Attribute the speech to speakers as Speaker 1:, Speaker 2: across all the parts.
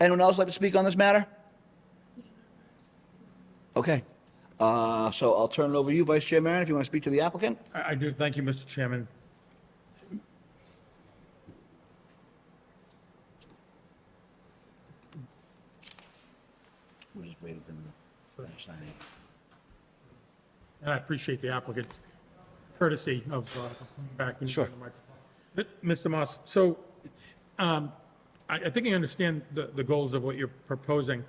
Speaker 1: Anyone else like to speak on this matter? Okay. Uh, So I'll turn it over to you, Vice Chair Maron, if you want to speak to the applicant.
Speaker 2: I I do, thank you, Mr. Chairman.
Speaker 1: We just waited for them to finish signing.
Speaker 2: And I appreciate the applicant's courtesy of uh, of coming back. and-
Speaker 1: Sure.
Speaker 2: But, Mr. Moss, so um, I I think I understand the the goals of what you're proposing.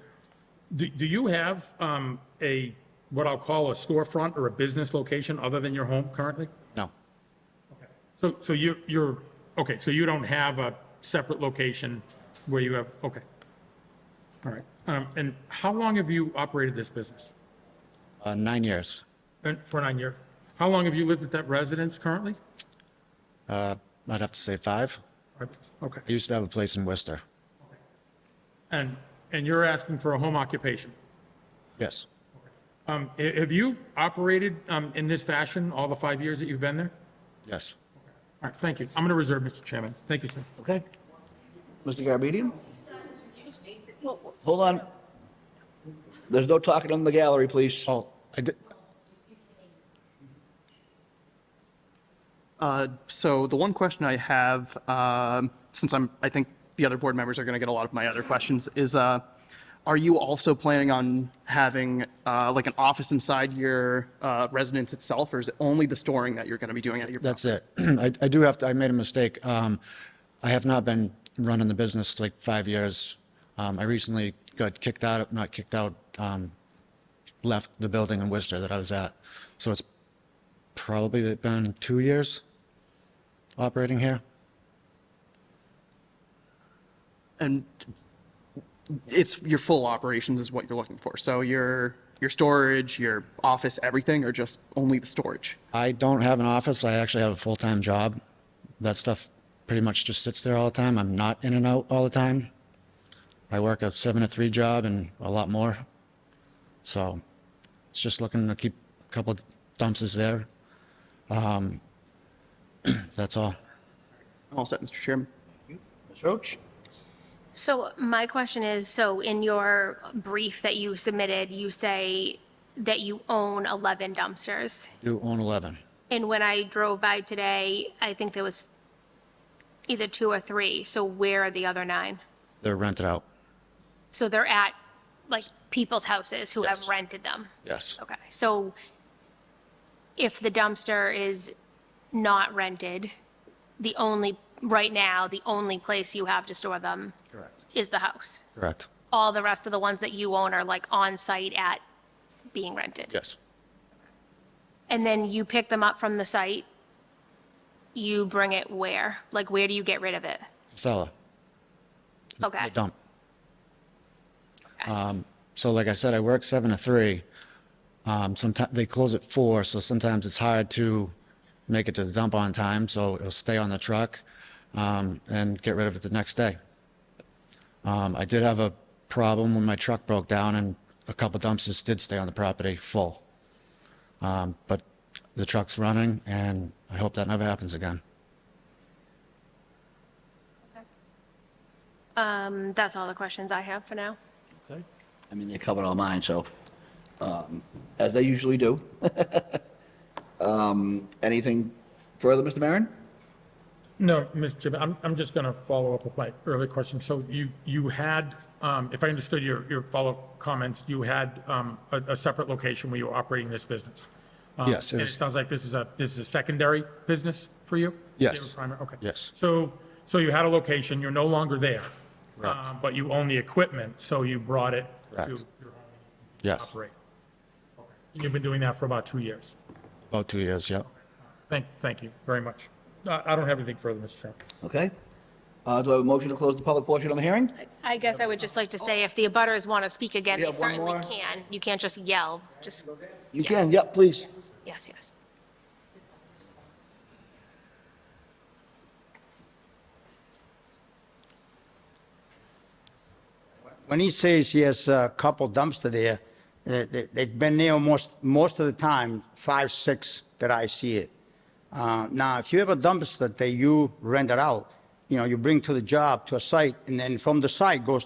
Speaker 2: Do do you have um, a, what I'll call a storefront or a business location other than your home currently?
Speaker 3: No,
Speaker 2: So, so you're, you're, okay, so you don't have a separate location where you have, okay. All right. Um, And how long have you operated this business?
Speaker 3: uh, nine years,
Speaker 2: And For nine years? How long have you lived at that residence currently?
Speaker 3: Uh, I'd have to say five.
Speaker 2: Okay.
Speaker 3: I used to have a place in Worcester.
Speaker 2: And, and you're asking for a home occupation?
Speaker 3: Yes,
Speaker 2: Um, ha- Have you operated um, in this fashion all the five years that you've been there?
Speaker 3: yes.
Speaker 2: All right, thank you. I'm going to reserve, Mr. Chairman. Thank you, sir.
Speaker 1: Okay. Mr. Garabedian?
Speaker 4: Excuse me. Well, well,
Speaker 1: Hold on. There's no talking in the gallery, please.
Speaker 3: Oh, I did,
Speaker 5: Uh, So the one question I have, um, since I'm, I think the other board members are going to get a lot of my other questions, is uh, are you also planning on having uh, like an office inside your uh, residence itself, or is it only the storing that you're going to be doing at your?
Speaker 3: that's it. I, I do have to, I made a mistake. Um, I have not been running the business like five years. Um, I recently got kicked out, of- not kicked out, um, left the building in Worcester that I was at. So it's probably been two years operating here.
Speaker 5: And it's your full operations is what you're looking for. So your, your storage, your office, everything, or just only the storage?
Speaker 3: I don't have an office. I actually have a full-time job. That stuff pretty much just sits there all the time. I'm not in and out all the time. I work a seven to three job and a lot more. So it's just looking to keep a couple of dumpsters there. Um, that's all.
Speaker 5: All set, Mr. Chairman?
Speaker 1: Ms. Roach?
Speaker 4: So my question is, so in your brief that you submitted, you say that you own 11 dumpsters.
Speaker 3: Do own 11.
Speaker 4: And when I drove by today, I think there was either two or three. So where are the other nine?
Speaker 3: They're rented out.
Speaker 4: So they're at like people's houses who have
Speaker 3: Yes.
Speaker 4: rented them?
Speaker 3: Yes.
Speaker 4: Okay, so if the dumpster is not rented, the only, right now, the only place you have to store them
Speaker 3: Correct.
Speaker 4: is the house?
Speaker 3: Correct.
Speaker 4: all the rest of the ones that you own are like on-site at being rented?
Speaker 3: Yes.
Speaker 4: And then you pick them up from the site, you bring it where? Like, where do you get rid of it?
Speaker 3: Casella.
Speaker 4: Okay,
Speaker 3: the dump. Um, So like I said, I work seven to three. Sometimes, they close at four, so sometimes it's hard to make it to the dump on time, so it'll stay on the truck um, and get rid of it the next day. Um, I did have a problem when my truck broke down and a couple dumpsters did stay on the property full. Um, But the truck's running and I hope that never happens again.
Speaker 4: um, that's all the questions I have for now.
Speaker 1: Okay. I mean, they covered all mine, so, um, as they usually do. Um, Anything further, Mr. Maron?
Speaker 2: No, Mr. Chairman, I'm, I'm just going to follow up with my earlier question. So you, you had, um, if I understood your, your follow-up comments, you had um, a, a separate location where you were operating this business? Um,
Speaker 3: Yes, it
Speaker 2: And it
Speaker 3: was-
Speaker 2: sounds like this is a, this is a secondary business for you?
Speaker 3: Yes.
Speaker 2: Is it a primary? Okay.
Speaker 3: Yes.
Speaker 2: So, so you had a location, you're no longer there. uh, But you own the equipment, so you brought it to
Speaker 3: Correct.
Speaker 2: your home
Speaker 3: Yes,
Speaker 2: to operate. Okay. And You've been doing that for about two years.
Speaker 3: about two years, yeah.
Speaker 2: Thank, thank you very much. I, I don't have anything further, Mr. Chairman.
Speaker 1: Okay. Uh, Do I have a motion to close the public portion of the hearing?
Speaker 4: I guess I would just like to say, if the abutters want to speak again,
Speaker 1: Oh. We have
Speaker 4: they
Speaker 1: one
Speaker 4: certainly
Speaker 1: more.
Speaker 4: can. You can't just yell, just,
Speaker 1: You can, yep, please.
Speaker 4: yes, yes.
Speaker 6: When he says he has a couple dumpster there, they- they- they've been there almost, most of the time, five, six that I see it. Uh, Now, if you have a dumpster that you rent it out, you know, you bring to the job, to a site, and then from the site goes to